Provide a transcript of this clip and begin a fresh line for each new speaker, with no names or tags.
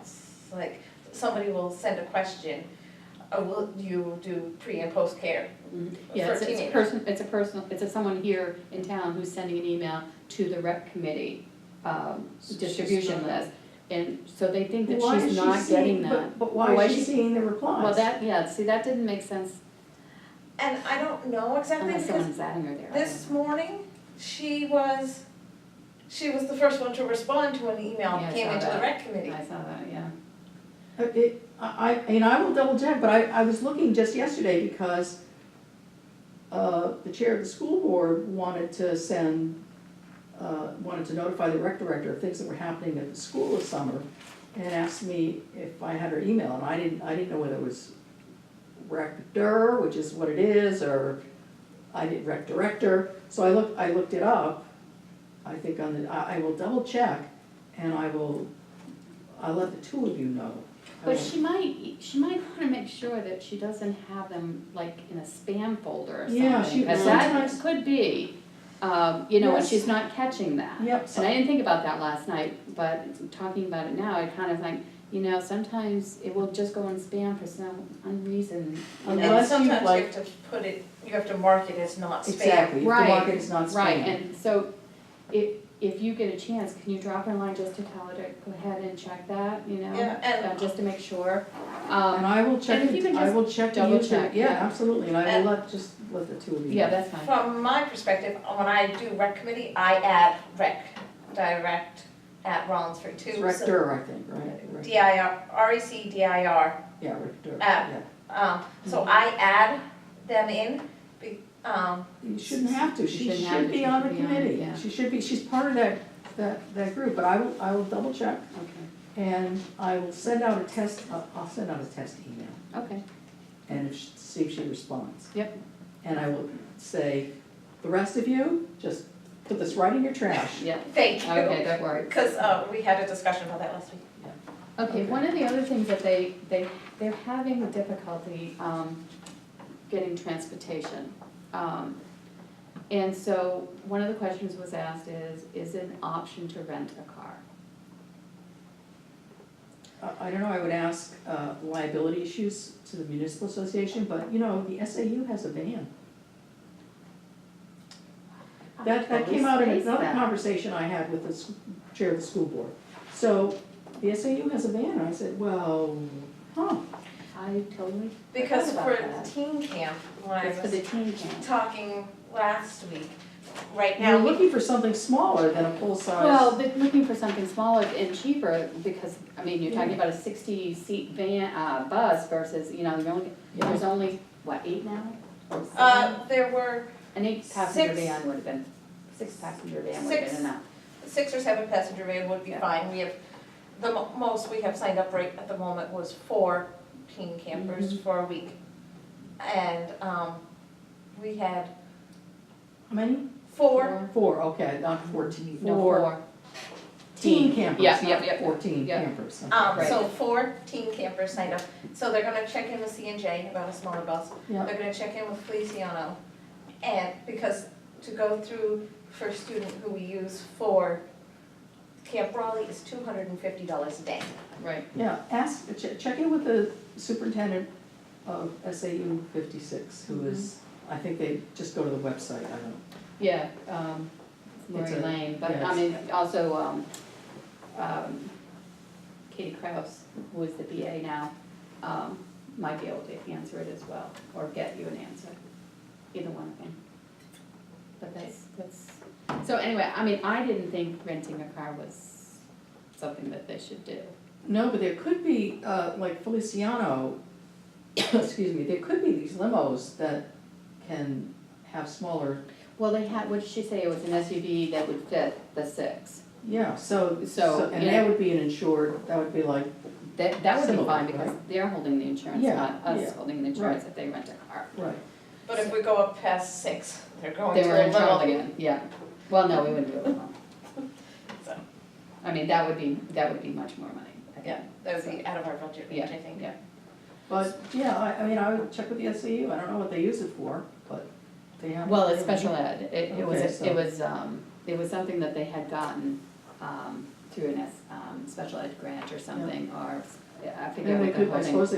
It's like, somebody will send a question, uh, will you do pre and post care
Yeah,
for
it's, it's a
teenagers?
person, it's a personal, it's a someone here in town who's sending an email to the rep committee, um,
she's
distribution
not-
list. And so they think that
Why is
she's
she
not
seeing-
getting that.
but- But why is she seeing the replies?
Well, that, yeah, see, that didn't make sense
And I don't know exactly,
unless
because
someone's adding her there. I don't
this morning, she was, she was the first one to respond to an email
Yeah, I
that came
saw
into the
that.
rec
know.
committee.
I saw that, yeah.
Uh, It, I, I, and I will double check, but I, I was looking just yesterday because uh, the chair of the school board wanted to send, uh, wanted to notify the rec director of things that were happening at the school this summer and asked me if I had her email, and I didn't, I didn't know whether it was rector, which is what it is, or I did rec director, so I looked, I looked it up. I think on the, I, I will double check and I will, I'll let the two of you know. I
But
will-
she might, she might wanna make sure that she doesn't have them like in a spam folder or something.
Yeah, she-
'cause that
sometimes-
could be, um, you know, and
Yes.
she's not catching that.
Yep,
And I
so,
didn't think about that last night, but talking about it now, I kind of think, you know, sometimes it will just go in spam for some unreason, you know.
Unless
And
you
sometimes you
like-
have to put it, you have to mark it as not spam.
exactly, if the
Right,
market is not spam.
Right, and so if, if you get a chance, can you drop her a line just to tell her to go ahead and check that, you know?
Yeah, and-
uh, Just to make sure.
And
Um,
I will
and
check,
if you
it-
can
I
just
will check the
double
YouTube-
check,
yeah,
yeah.
absolutely, and I
And-
will let, just let the two of you know.
yeah, that's fine.
From my perspective, when I do rec committee, I add rec, direct at Rollinsford too.
It's
so-
rector, I think, right? Rector.
D I R, R E C D I R,
Yeah, rector,
Ah.
yeah.
um, so I add them in, be, um,
You shouldn't have to, she
shouldn't have
should
to,
be
she
on the
should be on it,
committee,
yeah.
she should be, she's part of that, that, that group, but I will, I will double check.
Okay,
And I will send out a test, I'll, I'll send out a test email
okay,
and if she- see if she responds.
Yep.
And I will say, the rest of you, just put this right in your trash.
yeah,
thank you.
okay, don't worry.
Cause, uh, we had a discussion about that last week.
Okay, one of the other things that they, they, they're having difficulty, um, getting transportation. Um, And so, one of the questions was asked is, is it an option to rent a car?
I, I don't know, I would ask uh, liability issues to the municipal association, but you know, the SAU has a van. That, that came out in
Always
another
that.
conversation I had with the s- chair of the school board. So, the SAU has a van, I said, well, huh,
I totally.
Because
forgot
for
about that.
teen camp, when I
It's for the
was
teen camp.
talking last week, right
you're
now, we
looking for something smaller than a full-size.
Well, they're looking for something smaller and cheaper because, I mean, you're talking about a sixty seat van, uh, bus versus, you know, you're only,
Yeah.
there's only, what, eight now? Or seven?
Uh, there were
An eight passenger
six-
van would have been, six passenger van would have
six-
been enough.
six or seven passenger van would be
Yeah.
fine, we have, the mo- most we have signed up right at the moment was four teen
Mm-hmm.
campers for a week. And, um, we had
How many?
four,
Four, okay, not fourteen,
No,
four
four.
teen campers,
Yeah, yeah, yeah,
not fourteen
yeah.
campers. okay.
um,
Right.
so four teen campers signed up, so they're gonna check in with C and J about a smaller bus.
Yeah,
They're gonna check in with Feliciano, and, because to go through for a student who we use for Camp Raleigh is two hundred and fifty dollars a day.
Right.
yeah, ask, check, check in with the superintendent of SAU fifty-six,
Mm-hmm.
who is, I think they just go to the website, I don't.
Yeah, um,
It's
Lori
a-
Lane, but
yeah,
I mean, also, um, um, Katie Kraus, who is the BA now, um, might be able to answer it as well, or get you an answer, either one of them. But that's, that's, so anyway, I mean, I didn't think renting a car was something that they should do.
No, but there could be, uh, like Feliciano, excuse me, there could be these limos that can have smaller,
Well, they had, what did she say, it was an SUV that would fit the six.
yeah, so,
So,
so, and
yeah.
that would be an insured, that would be like,
That, that would be
Similar,
fine, because they're holding the insurance,
Yeah,
not us
yeah,
holding the insurance if they rent a car.
right,
But if we go up past six, they're going
They
to
were
a
in trouble
little,
again, yeah. Well, no, we wouldn't do it alone.
So.
I mean, that would be, that would be much more money. I think.
yeah, that would be out of our budget range, I think.
Yeah,
but, yeah, I, I mean, I would check with the SAU, I don't know what they use it for, but they have.
Well, it's special ed, it, it
Okay,
was,
so-
it was, um, it was something that they had gotten, um, through an S, um, special ed grant or something, or, I forget
And they
what the
could,
whole
I
name-
suppose